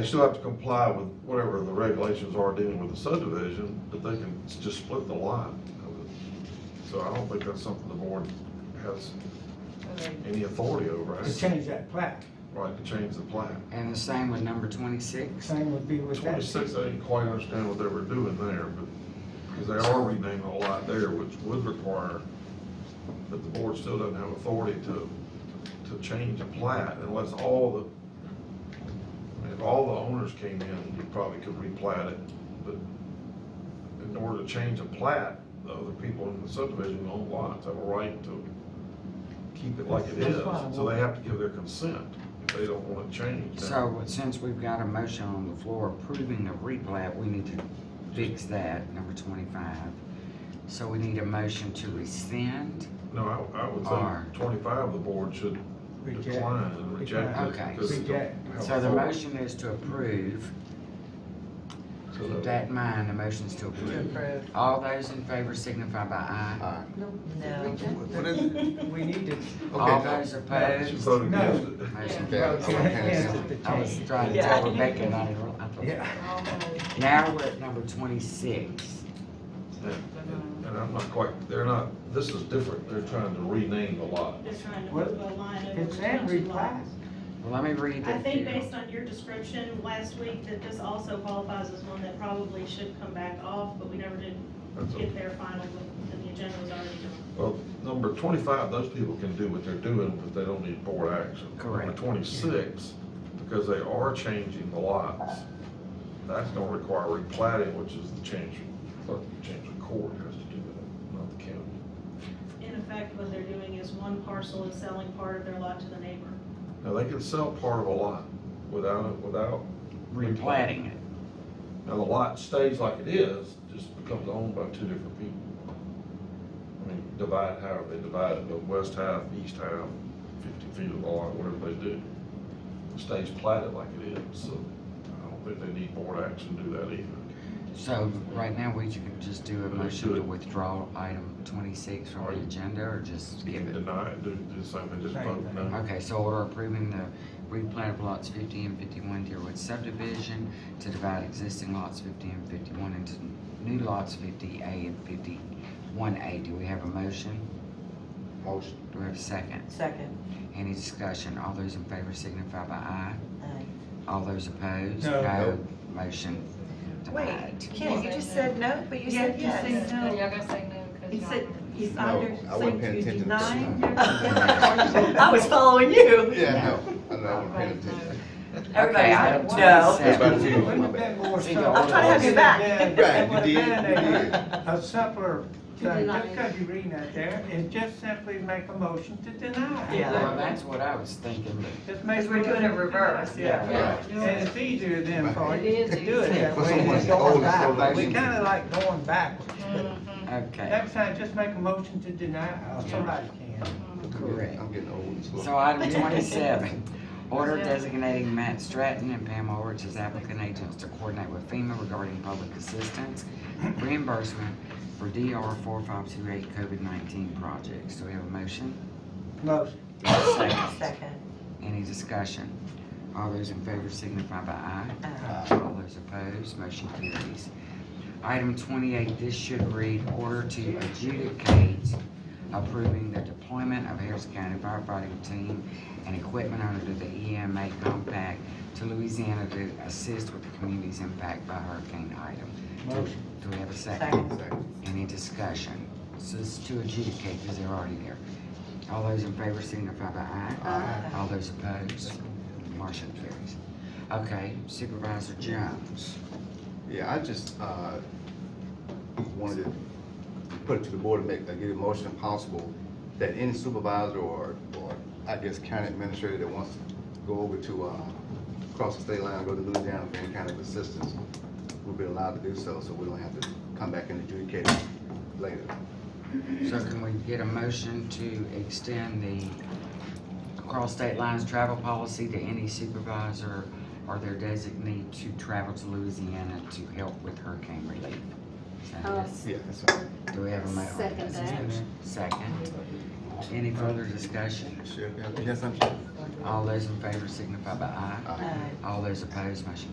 They still have to comply with whatever the regulations are dealing with the subdivision, but they can s- just split the lot. So I don't think that's something the board has any authority over, to right? change that plat. Right, to change the plan. And the same with number twenty-six. Same would be with that. Twenty-six, I didn't quite understand what they were doing there, but, because they are renaming a lot there, which would require that the board still doesn't have authority to, to change a plat unless all the, I mean, if all the owners came in, you probably could replat it, but in order to change a plat, the other people in the subdivision own lots have a right to keep it like it is, That's fine. so they have to give their consent if they don't want to change. that. So since we've got a motion on the floor approving the replat, we need to fix that, number twenty-five. So we need a motion to rescind. No, I, I would Are. think twenty-five, the board should Reject. decline and reject it. Okay. because it don't Reject. have So the authority. motion is to approve. So Keep the- that in mind, the motion's to approve. approve. All those in favor signify by aye. Aye. No. What is it? We need to, All Okay, those She opposed. voted No. against it. Motion Yeah, carries. okay. Yeah. I was trying to tell Rebecca, and I didn't- I thought. yeah, Now we're at number twenty-six. And and I'm not quite, they're not, this is different, they're trying to rename the lot. They're trying to Well, move a line over. it's to and two lots. replat. Well, let me read I the think few. based on your description last week, that this also qualifies as one that probably should come back off, but we never did That's a- get there finally, and the agenda was already done. Well, number twenty-five, those people can do what they're doing, but they don't need board action. Number Correct. twenty-six, because they are changing the lots, that's gonna require replating, which is the change, clerk, change of court has to do that, not the county. In effect, what they're doing is one parcel is selling part of their lot to the neighbor. Now, they can sell part of a lot without, it without, Replatting it. now the lot stays like it is, just becomes owned by two different people. I mean, divide however they divide it, but west half, east half, fifty feet of the lot, whatever they do. It Stays platted like it is, so I don't think they need board action to do that either. So right now, we ju- just do a Let's motion do to it. withdraw item twenty-six from the Right. agenda or just You give can it? deny it, do, do something, just Same vote thing. no. Okay, so we're approving the replat of lots fifty and fifty-one Deerwood subdivision to divide existing lots fifty and fifty-one into new lots fifty A and fifty-one A. Do we have a motion? motion. Do we have a second? Second. Any discussion? All those in favor signify by aye. Aye. All those opposed? No. Motion Wait, denied. Kim, you just said no, but you Yeah, said you said yes. no. Y'all gotta say no, cause You y'all said, remember. you No, either I wasn't said paying you attention to the denying. sign. your- I was following you. Yeah, no, I know, I wasn't paying attention. Everybody Okay, item said no. Everybody said Wouldn't My have bad. been more See, the so- I'm trying to have you back. Right, you did, you did. A simpler, thing, just deny. because you're reading out there, is just simply make a motion to deny. Yeah. Well, that's what I was thinking, but Just make Because we're doing it reverse. Yeah, Right. and it's easier then for you It to is do it easier. that For way someone than that's old going and so backwards. We lazy. kinda like going backwards, but Okay, next time, just make a motion to deny, or somebody can. correct. I'm getting old and slow. So item twenty-seven, order designating Matt Stratton and Pam Orich as applicant agents to coordinate with FEMA regarding public assistance reimbursement for DR four five two eight COVID nineteen projects. Do we have a motion? Motion. Second. Any discussion? All those in favor signify by aye. Aye. All those opposed, motion carries. Item twenty-eight, this should read, order to adjudicate approving the deployment of Harris County firefighting team and equipment under the EMA compact to Louisiana to assist with the communities impacted by Hurricane Item. Motion. Do we have a second? Second. Second. Any discussion? This is to adjudicate, because they're already there. All those in favor signify by aye. Aye. All those opposed, motion carries. Okay, Supervisor Jones. Yeah, I just, uh, wanted to put it to the board and make, uh, get a motion if possible, that any supervisor or, or I guess county administrator that wants to go over to, uh, across the state line, go to Louisiana for any kind of assistance, will be allowed to do so, so we don't have to come back and adjudicate it later. So can we get a motion to extend the cross state lines travel policy to any supervisor or their designee to travel to Louisiana to help with hurricane relief? Uh, Yeah, that's all. Do we have a motion? Second that. Second. Any further discussion? Sheriff, yes, I'm sure. All those in favor signify by aye. Uh, Uh, All those opposed, motion